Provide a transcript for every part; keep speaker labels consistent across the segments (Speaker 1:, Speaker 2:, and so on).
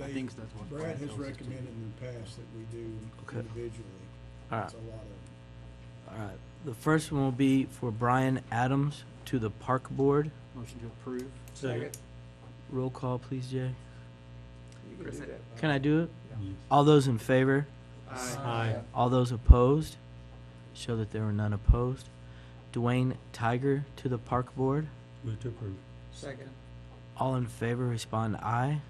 Speaker 1: I
Speaker 2: think
Speaker 1: think that's what.
Speaker 2: Brad has recommended in the past that we do
Speaker 3: Okay.
Speaker 2: individually.
Speaker 3: All right.
Speaker 2: It's a lot of,
Speaker 3: All right. The first one will be for Brian Adams to the Park Board.
Speaker 1: Motion to approve.
Speaker 4: Second.
Speaker 3: Roll call, please, Jay.
Speaker 4: You can do that.
Speaker 3: Can I do it? All those in favor?
Speaker 4: Aye.
Speaker 3: All those opposed? Show that there were none opposed. Dwayne Tiger to the Park Board.
Speaker 5: Move to approve.
Speaker 4: Second.
Speaker 3: All in favor, respond aye.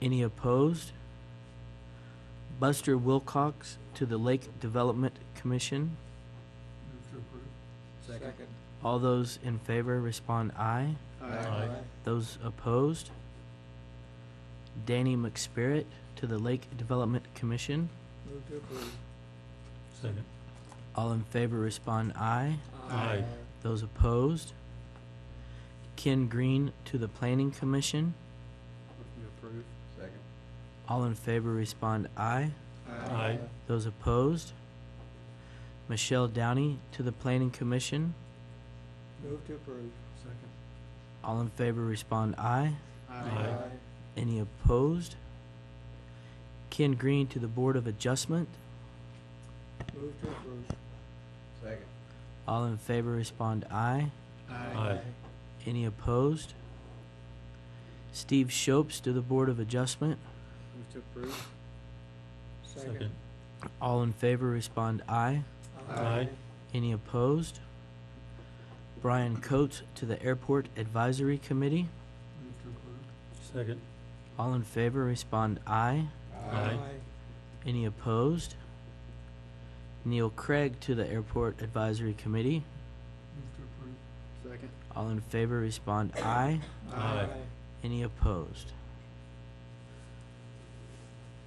Speaker 3: Any opposed? Buster Wilcox to the Lake Development Commission.
Speaker 4: Second.
Speaker 3: All those in favor, respond aye. Those opposed? Danny McSpirit to the Lake Development Commission.
Speaker 4: Move to approve.
Speaker 5: Second.
Speaker 3: All in favor, respond aye. Those opposed? Ken Green to the Planning Commission.
Speaker 1: Motion to approve.
Speaker 4: Second.
Speaker 3: All in favor, respond aye.
Speaker 5: Aye.
Speaker 3: Those opposed? Michelle Downey to the Planning Commission.
Speaker 4: Move to approve.
Speaker 1: Second.
Speaker 3: All in favor, respond aye.
Speaker 5: Aye.
Speaker 3: Any opposed? Ken Green to the Board of Adjustment.
Speaker 4: Move to approve. Second.
Speaker 3: All in favor, respond aye.
Speaker 5: Aye.
Speaker 3: Any opposed? Steve Shopes to the Board of Adjustment.
Speaker 1: Move to approve.
Speaker 4: Second.
Speaker 3: All in favor, respond aye.
Speaker 5: Aye.
Speaker 3: Any opposed? Brian Coates to the Airport Advisory Committee.
Speaker 1: Move to approve.
Speaker 5: Second.
Speaker 3: All in favor, respond aye.
Speaker 5: Aye.
Speaker 3: Any opposed? Neil Craig to the Airport Advisory Committee.
Speaker 1: Move to approve. Second.
Speaker 3: All in favor, respond aye.
Speaker 5: Aye.
Speaker 3: Any opposed?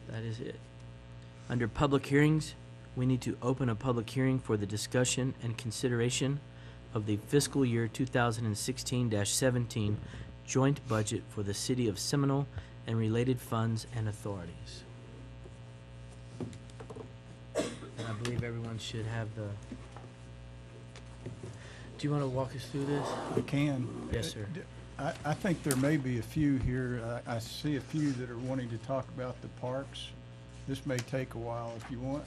Speaker 3: That is it. Under public hearings, we need to open a public hearing for the discussion and consideration of the fiscal year 2016-17 joint budget for the city of Seminole and related funds and authorities. And I believe everyone should have the... Do you want to walk us through this?
Speaker 2: I can.
Speaker 3: Yes, sir.
Speaker 2: I, I think there may be a few here. I, I see a few that are wanting to talk about the parks. This may take a while if you want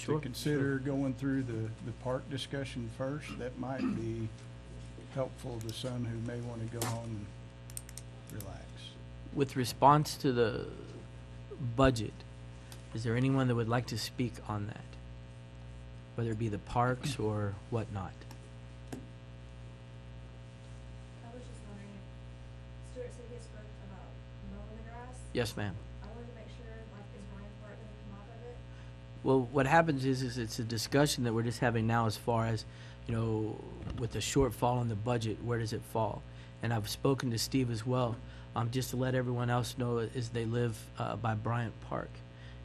Speaker 2: to consider going through the, the park discussion first. That might be helpful to some who may want to go home and relax.
Speaker 3: With response to the budget, is there anyone that would like to speak on that? Whether it be the parks or whatnot?
Speaker 6: I was just wondering if Stuart said he spoke about mowing the grass.
Speaker 3: Yes, ma'am.
Speaker 6: I wanted to make sure, like, is Ryan Park gonna come off of it?
Speaker 3: Well, what happens is, is it's a discussion that we're just having now as far as, you know, with the shortfall in the budget, where does it fall? And I've spoken to Steve as well, um, just to let everyone else know is they live, uh, by Bryant Park.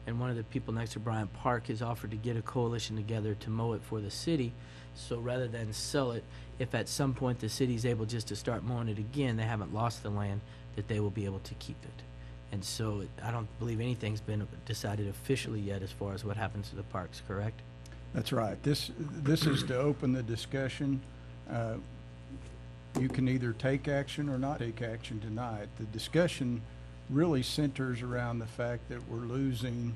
Speaker 3: And one of the people next to Bryant Park has offered to get a coalition together to mow it for the city. So rather than sell it, if at some point the city's able just to start mowing it again, they haven't lost the land, that they will be able to keep it. And so it- I don't believe anything's been decided officially yet as far as what happens to the parks, correct?
Speaker 2: That's right. This, this is to open the discussion. Uh, You can either take action or not take action tonight. The discussion really centers around the fact that we're losing,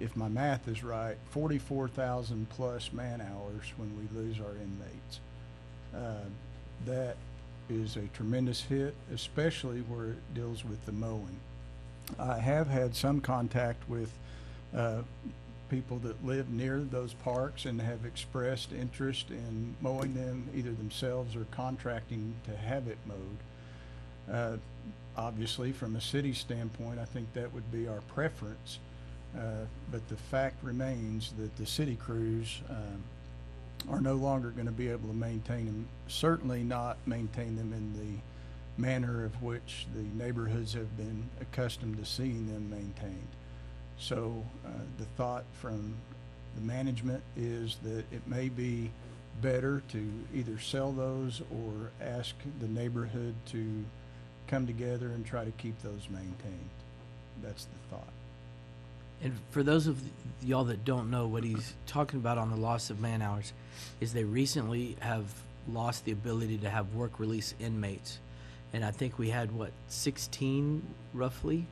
Speaker 2: if my math is right, forty-four thousand plus man-hours when we lose our inmates. Uh, That is a tremendous hit, especially where it deals with the mowing. I have had some contact with uh, people that live near those parks and have expressed interest in mowing them, either themselves or contracting to have it mowed. Uh, Obviously, from a city standpoint, I think that would be our preference. uh, But the fact remains that the city crews um, are no longer going to be able to maintain them, certainly not maintain them in the manner of which the neighborhoods have been accustomed to seeing them maintained. So uh, the thought from the management is that it may be better to either sell those or ask the neighborhood to come together and try to keep those maintained. That's the thought.
Speaker 3: And for those of y'all that don't know, what he's talking about on the loss of man hours is they recently have lost the ability to have work release inmates. And I think we had, what, 16 roughly